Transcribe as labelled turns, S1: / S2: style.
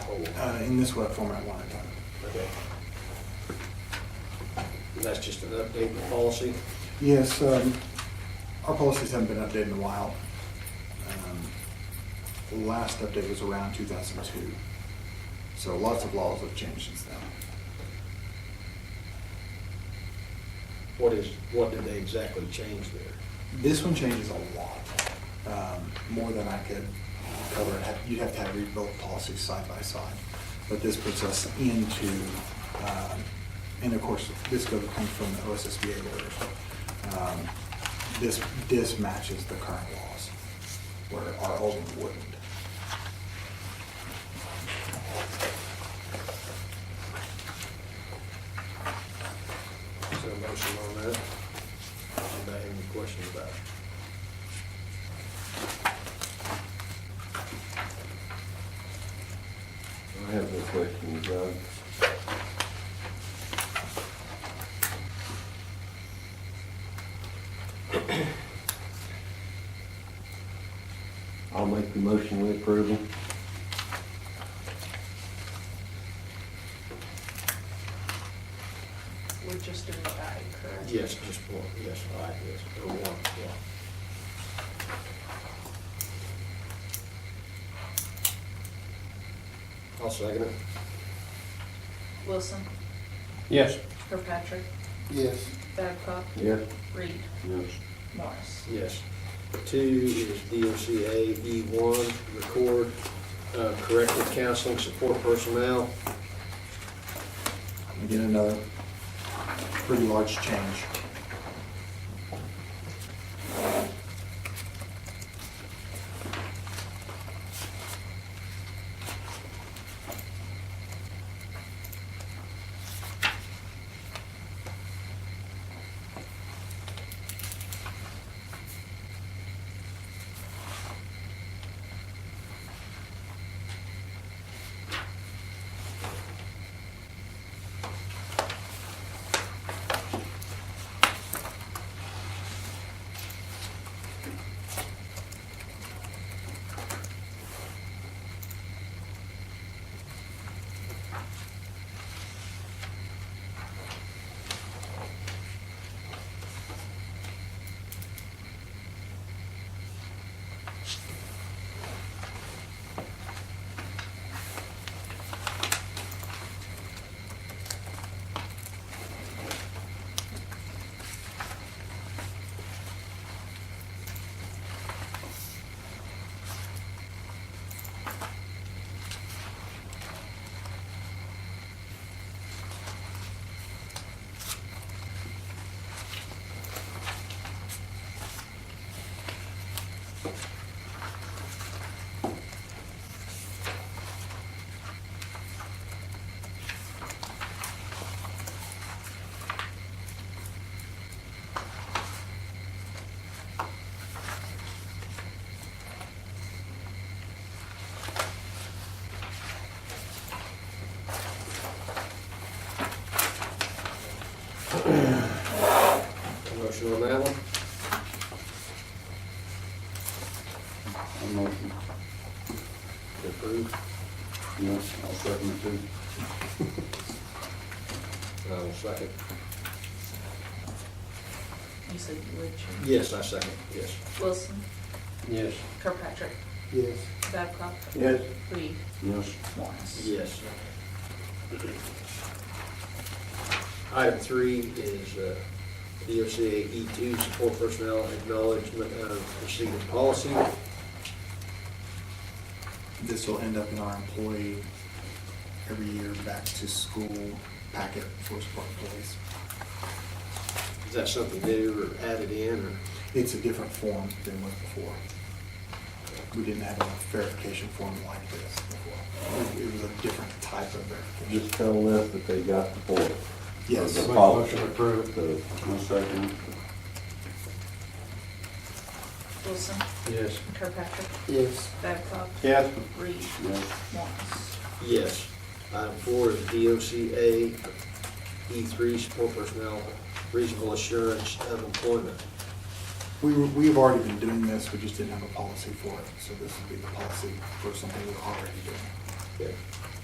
S1: format.
S2: uh, in this web format one at a time.
S1: Okay. And that's just an update in the policy.
S2: Yes, um, our policies haven't been updated in a while. Um, The last update was around 2002. So lots of laws have changed since then.
S1: What is, what did they exactly change there?
S2: This one changes a lot, um, more than I could cover. It had- You'd have to have rebuilt policies side by side. But this puts us into, um, and of course, this goes, comes from the OSSBA orders. Um, This, this matches the current laws, where our old one wouldn't.
S1: Is there a motion on that? Anybody have any questions about it?
S3: I have no questions, Doug. I'll make the motion with approval.
S4: We're just doing that, correct?
S1: Yes, just one, yes, all right, yes, or one, yeah. I'll second it.
S4: Wilson,
S1: Yes.
S4: Kirkpatrick,
S1: Yes.
S4: Babcock,
S3: Yes?
S4: Reed,
S3: Yes.
S4: Morris.
S1: Yes. Two is DOCA E1, E record uh, corrective counseling support personnel.
S2: Again, another pretty large change.
S1: A Motion on that one?
S5: A motion.
S1: Approved.
S5: Yes, I'll second it too.
S1: I'll second.
S4: You said you would. Jim.
S1: Yes, I second, yes.
S4: Wilson,
S1: Yes.
S4: Kirkpatrick,
S1: Yes.
S4: Babcock,
S5: Yes.
S4: Reed,
S5: Yes.
S4: Morris.
S1: Yes. Item three is uh, DOCA E2, E support personnel acknowledgement of receiving policy.
S2: This will end up in our employee every year back to school packet for support employees.
S1: Is that something new or added in or?
S2: It's a different form than was before. We didn't have a verification form like this before. It- It was a different type of verification.
S3: Just tell us that they got the board.
S2: Yes.
S3: The
S2: Make a
S3: policy. The-
S5: I'll second it.
S4: Wilson,
S1: Yes.
S4: Kirkpatrick,
S1: Yes.
S4: Babcock,
S5: Yes.
S4: Reed,
S5: Yes.
S4: Morris.
S1: Yes. Item four is DOCA E3, E support personnel reasonable assurance of employment.
S2: We were, we have already been doing this, we just didn't have a policy for it. So this would be the policy for something we're already doing.
S1: Okay.